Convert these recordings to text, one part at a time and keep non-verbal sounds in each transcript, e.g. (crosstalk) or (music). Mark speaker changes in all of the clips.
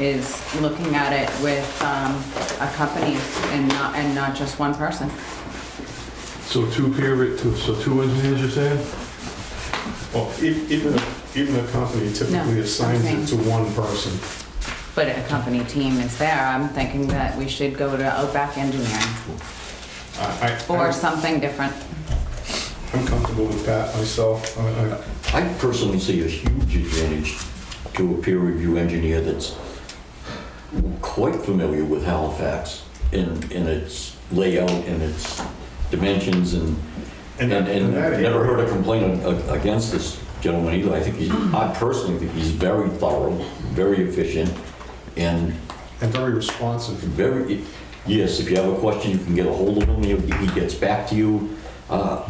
Speaker 1: is looking at it with, um, a company and not, and not just one person.
Speaker 2: So two peer, re- two- so two engineers, you're saying?
Speaker 3: Well, e- even, a- even a company typically assigns
Speaker 1: I'm
Speaker 3: it to one person.
Speaker 1: But a company team is there, I'm thinking that we should go to Outback Engineering
Speaker 3: I, I-
Speaker 1: or something different.
Speaker 3: I'm comfortable with Pat myself. I- I-
Speaker 4: I personally see a huge advantage to a peer review engineer that's quite familiar with Halifax in, in its layout and its dimensions and, and, and
Speaker 3: that-
Speaker 4: I've never heard a complaint a- a- against this gentleman either. I think he, I personally think he's very thorough, very efficient, and
Speaker 3: And very responsive.
Speaker 4: very, yes, if you have a question, you can get a hold of him, he he gets back to you. Uh,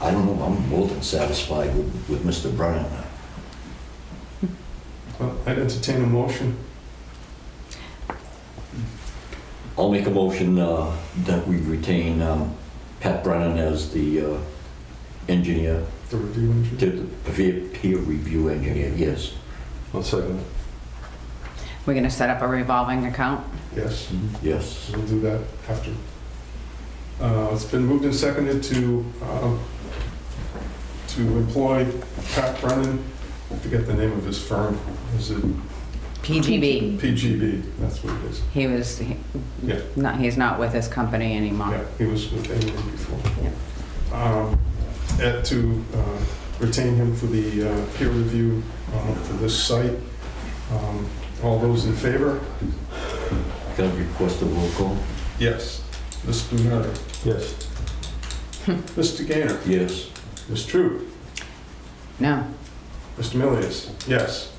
Speaker 4: I I don't know, I'm more than satisfied with, with Mr. Brennan.
Speaker 3: Well, I'd entertain a motion.
Speaker 4: I'll make a motion uh, that we retain um, Pat Brennan as the uh, engineer,
Speaker 3: The review engineer.
Speaker 4: to the peer peer review engineer, yes.
Speaker 2: One second.
Speaker 1: We're gonna set up a revolving account.
Speaker 3: Yes,
Speaker 4: Yes.
Speaker 3: we'll do that after. Uh, It's been moved and seconded to, uh, to employ Pat Brennan. I forget the name of his firm. Is it
Speaker 1: PGB,
Speaker 3: PGB? That's what it is.
Speaker 1: he was, he-
Speaker 3: Yeah.
Speaker 1: not, he's not with his company anymore.
Speaker 3: Yeah, he was with Ingram before.
Speaker 1: Yeah.
Speaker 3: Um, and To uh, retain him for the uh, peer review uh, for this site. Um, All those in favor?
Speaker 4: Can I request a roll call?
Speaker 3: Yes. Mr. Blumetter?
Speaker 2: Yes.
Speaker 3: Mr. Gaynor?
Speaker 4: Yes.
Speaker 3: Ms. Troop?
Speaker 1: No,
Speaker 3: Mr. Milius? Yes.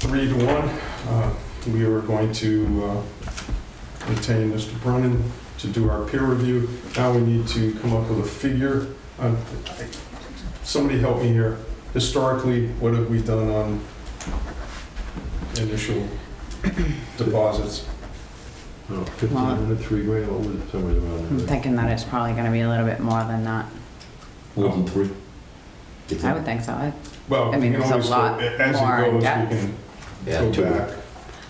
Speaker 3: Three to one. uh, We are going to uh, retain Mr. Brennan to do our peer review. Now we need to come up with a figure. Um, I- Somebody help me here. Historically, what have we done on initial deposits?
Speaker 2: No, 15
Speaker 1: Wow.
Speaker 2: hundred, Oh, three grand, what was it, somewhere
Speaker 1: I'm
Speaker 2: around there?
Speaker 1: thinking that it's probably gonna be a little bit more than that.
Speaker 4: More than three?
Speaker 1: I would think so. I- I
Speaker 3: Well, we
Speaker 1: mean,
Speaker 3: can
Speaker 1: it's a
Speaker 3: always go,
Speaker 1: lot
Speaker 3: as it
Speaker 1: more in
Speaker 3: goes, we
Speaker 1: depth.
Speaker 3: can
Speaker 4: Yeah,
Speaker 3: go
Speaker 4: two.
Speaker 3: back.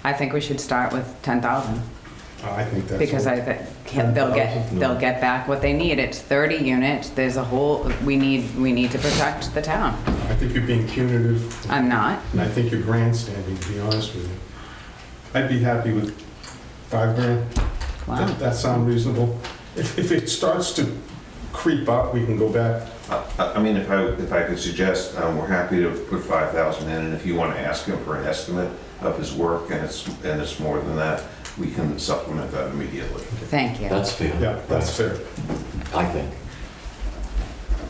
Speaker 1: I think we should start with 10,000
Speaker 3: Uh, I think that's.
Speaker 1: because I think can- they'll get,
Speaker 2: 10,000?
Speaker 1: they'll get back what they need. It's 30 units. There's a whole, we need, we need to protect the town.
Speaker 3: I think you're being punitive.
Speaker 1: I'm not.
Speaker 3: And I think you're grandstanding, to be honest with you. I'd be happy with five grand.
Speaker 1: Wow.
Speaker 3: That, that sound reasonable? If, if it starts to creep up, we can go back.
Speaker 5: I I mean, if I, if I could suggest, um, we're happy to put 5,000 in, and if you want to ask him for an estimate of his work, and it's, and it's more than that, we can supplement that immediately.
Speaker 1: Thank you.
Speaker 4: That's fair.
Speaker 3: Yeah, that's fair.
Speaker 4: I think.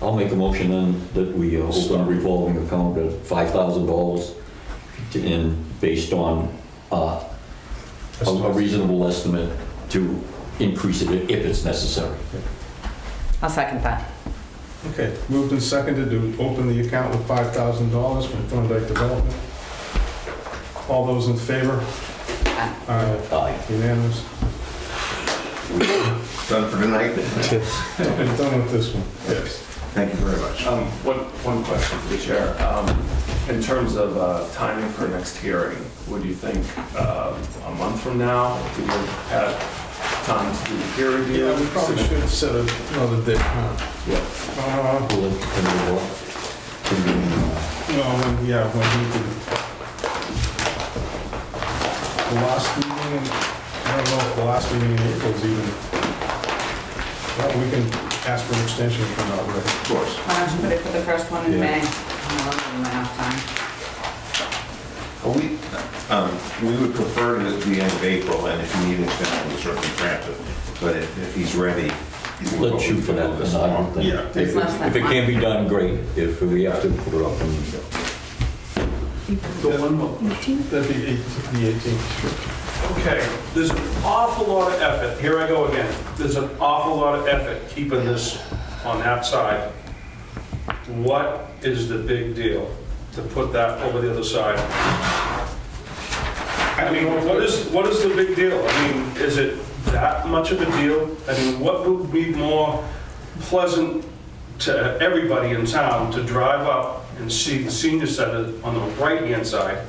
Speaker 4: I'll make a motion then that we uh, open a revolving account at $5,000 to- and based on uh, a a reasonable estimate to increase it if it's necessary.
Speaker 1: I'll second that.
Speaker 3: Okay, moved and seconded to open the account with five thousand dollars from Thorndike Development. All those in favor?
Speaker 1: Aye.
Speaker 3: Aye,
Speaker 4: Aye.
Speaker 1: (laughs)
Speaker 3: unanimous.
Speaker 5: Done for tonight?
Speaker 3: And done with this one, yes.
Speaker 5: Thank you very much.
Speaker 6: Um, One, one question for the chair. Um, In terms of uh, timing for next hearing, would you think um, a month from now, to give Pat time to do the peer review?
Speaker 3: Yeah, we probably should set another date, huh?
Speaker 4: Yeah.
Speaker 3: Uh,
Speaker 4: Will it come to work? Can we, uh,
Speaker 3: Well, when- yeah, when he did. The last meeting, in- I don't know if the last meeting in April is even, well, we can ask for an extension if we're not ready.
Speaker 5: Of course.
Speaker 1: Why don't you put it for the first one in
Speaker 3: Yeah.
Speaker 1: May? I'll give them enough time.
Speaker 5: Well, We, um, we would prefer to the end of April, and if you need an extension, we'll certainly grant it. But if, if he's ready. we'll-
Speaker 4: Let's shoot for that. then, I don't think.
Speaker 5: Yeah.
Speaker 4: If it-
Speaker 1: less than
Speaker 4: If it
Speaker 1: one.
Speaker 4: can be done, great. If we have to put it up, then
Speaker 6: Go one month.
Speaker 3: That'd be eight- the 18th.
Speaker 6: Okay, there's an awful lot of effort, here I go again, there's an awful lot of effort keeping this on that side. What is the big deal to put that over the other side? I mean, what is, what is the big deal? I mean, is it that much of a deal? I mean, what would be more pleasant to everybody in town to drive up and see the senior center on the right-hand side